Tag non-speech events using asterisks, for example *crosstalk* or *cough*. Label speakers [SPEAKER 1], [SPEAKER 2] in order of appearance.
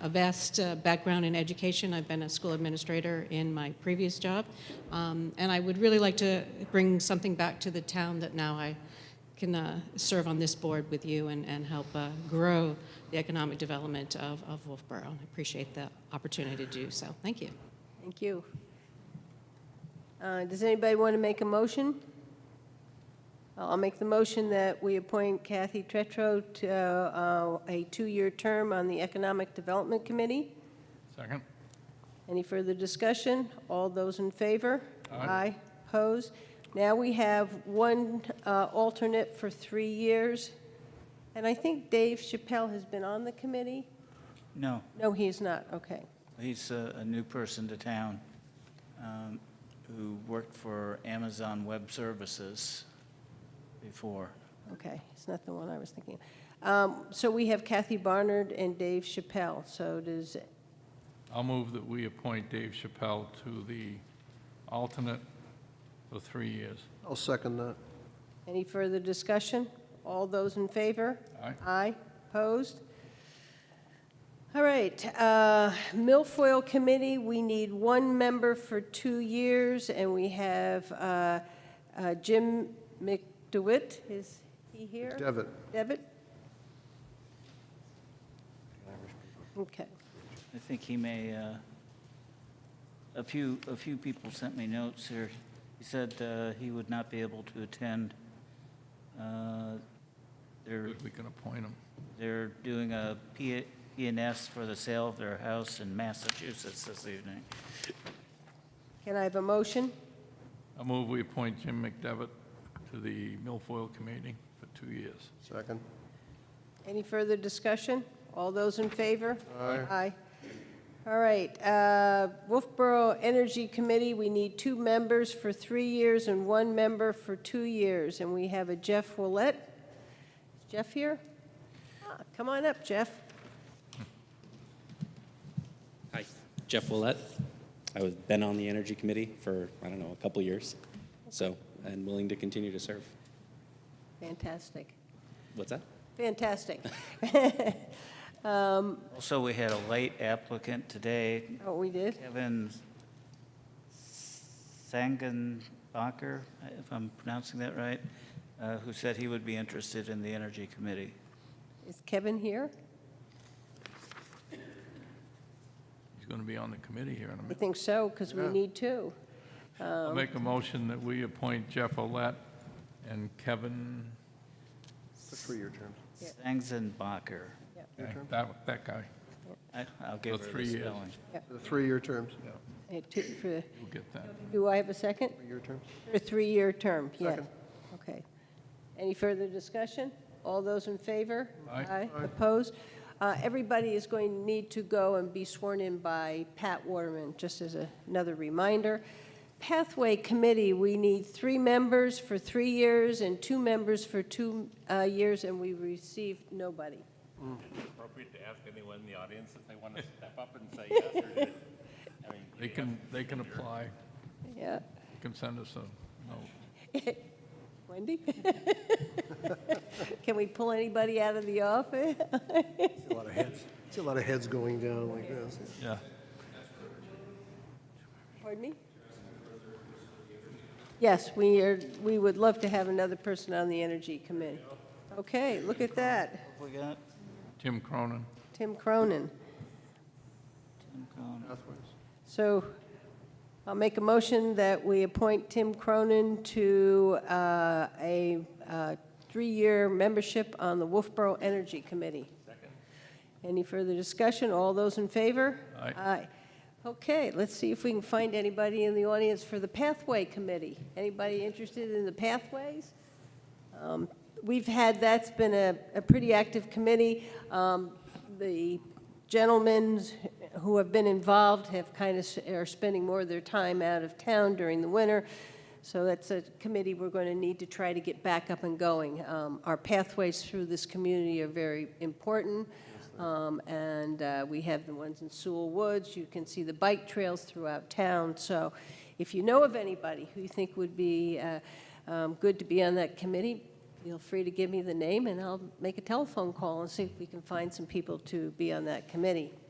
[SPEAKER 1] a vast uh, background in education. I've been a school administrator in my previous job. Um, and I would really like to bring something back to the town that now I can uh, serve on this board with you and, and help uh, grow the economic development of, of Wolfboro. I appreciate the opportunity to do so. Thank you.
[SPEAKER 2] Thank you. Uh, Does anybody want to make a motion? I'll I'll make the motion that we appoint Kathy Tretro to uh, a two-year term on the Economic Development Committee.
[SPEAKER 3] Second.
[SPEAKER 2] Any further discussion? All those in favor?
[SPEAKER 3] Aye.
[SPEAKER 2] Opposed? Now we have one uh, alternate for three years, and I think Dave Chappelle has been on the committee?
[SPEAKER 4] No,
[SPEAKER 2] No, he is not, okay.
[SPEAKER 4] he's a, a new person to town um, who worked for Amazon Web Services before.
[SPEAKER 2] Okay, it's not the one I was thinking. of. Um, So we have Kathy Barnard and Dave Chappelle, so does,
[SPEAKER 3] I'll move that we appoint Dave Chappelle to the alternate for three years.
[SPEAKER 5] I'll second that.
[SPEAKER 2] any further discussion? All those in favor?
[SPEAKER 3] Aye.
[SPEAKER 2] Aye, opposed? All right, uh, Milfoil Committee, we need one member for two years, and we have uh, uh, Jim McDewitt, is he here?
[SPEAKER 5] Devitt,
[SPEAKER 2] Devitt? Okay.
[SPEAKER 4] I think he may, uh, a few, a few people sent me notes here. He said uh, he would not be able to attend. Uh, They're,
[SPEAKER 3] Good, We can appoint him.
[SPEAKER 4] they're doing a P- PNS for the sale of their house in Massachusetts this evening.
[SPEAKER 2] Can I have a motion?
[SPEAKER 3] I'll move we appoint Jim McDevitt to the Milfoil Committee for two years.
[SPEAKER 5] second.
[SPEAKER 2] Any further discussion? All those in favor?
[SPEAKER 5] Aye.
[SPEAKER 2] Aye. All right, uh, Wolfboro Energy Committee, we need two members for three years and one member for two years, and we have a Jeff Willett. Is Jeff here? Ah, Come on up, Jeff.
[SPEAKER 6] Hi, Jeff Willett. I've been on the Energy Committee for, I don't know, a couple years, so, and willing to continue to serve.
[SPEAKER 2] Fantastic,
[SPEAKER 6] What's that?
[SPEAKER 2] fantastic.
[SPEAKER 4] Also, we had a late applicant today,
[SPEAKER 2] Oh, we did?
[SPEAKER 4] Kevin Sangenbacher, if I'm pronouncing that right, uh, who said he would be interested in the Energy Committee.
[SPEAKER 2] Is Kevin here?
[SPEAKER 3] He's going to be on the committee here in a
[SPEAKER 2] I
[SPEAKER 3] minute.
[SPEAKER 2] think so, because we
[SPEAKER 5] Yeah.
[SPEAKER 2] need two.
[SPEAKER 3] I'll make a motion that we appoint Jeff Olet and Kevin,
[SPEAKER 5] For three-year terms.
[SPEAKER 2] Yeah.
[SPEAKER 4] Sangenbacher.
[SPEAKER 3] that, that guy.
[SPEAKER 4] I- I'll give
[SPEAKER 3] For
[SPEAKER 4] her
[SPEAKER 3] three
[SPEAKER 4] the
[SPEAKER 3] years.
[SPEAKER 4] spelling.
[SPEAKER 5] For three-year terms.
[SPEAKER 2] Uh, two for-
[SPEAKER 3] We'll get that.
[SPEAKER 2] Do I have a second?
[SPEAKER 5] Three-year terms.
[SPEAKER 2] For a three-year term, yes.
[SPEAKER 5] Second.
[SPEAKER 2] Okay. Any further discussion? All those in favor?
[SPEAKER 3] Aye.
[SPEAKER 5] Aye.
[SPEAKER 2] Opposed? Uh, Everybody is going to need to go and be sworn in by Pat Waterman, just as a- another reminder. Pathway Committee, we need three members for three years and two members for two uh, years, and we received nobody.
[SPEAKER 7] appropriate to ask anyone in the audience if they want to step up and say yes or no? I mean,
[SPEAKER 3] They can, they can apply,
[SPEAKER 2] Yeah. *laughs*
[SPEAKER 3] They can send us a note.
[SPEAKER 2] Wendy? *laughs* Can we pull anybody out of the office? *laughs*
[SPEAKER 5] See a lot of heads, see a lot of heads going down like this.
[SPEAKER 3] Yeah.
[SPEAKER 2] Pardon me? Yes, we are, we would love to have another person on the Energy Committee. Okay, look at that,
[SPEAKER 4] What we got?
[SPEAKER 3] Tim Cronin.
[SPEAKER 2] Tim Cronin.
[SPEAKER 4] Tim Cronin.
[SPEAKER 5] Pathways.
[SPEAKER 2] So I'll make a motion that we appoint Tim Cronin to uh, a uh, three-year membership on the Wolfboro Energy Committee. Any further discussion? All those in favor?
[SPEAKER 3] Aye.
[SPEAKER 2] Aye. Okay, let's see if we can find anybody in the audience for the Pathway Committee. Anybody interested in the pathways? Um, We've had, that's been a, a pretty active committee. Um, The gentlemen who have been involved have kind of, are spending more of their time out of town during the winter. So that's a committee we're going to need to try to get back up and going. Um, Our pathways through this community are very important. Um, And uh, we have the ones in Sewell Woods. You can see the bike trails throughout town. So if you know of anybody who you think would be uh, um, good to be on that committee, feel free to give me the name, and I'll make a telephone call and see if we can find some people to be on that committee.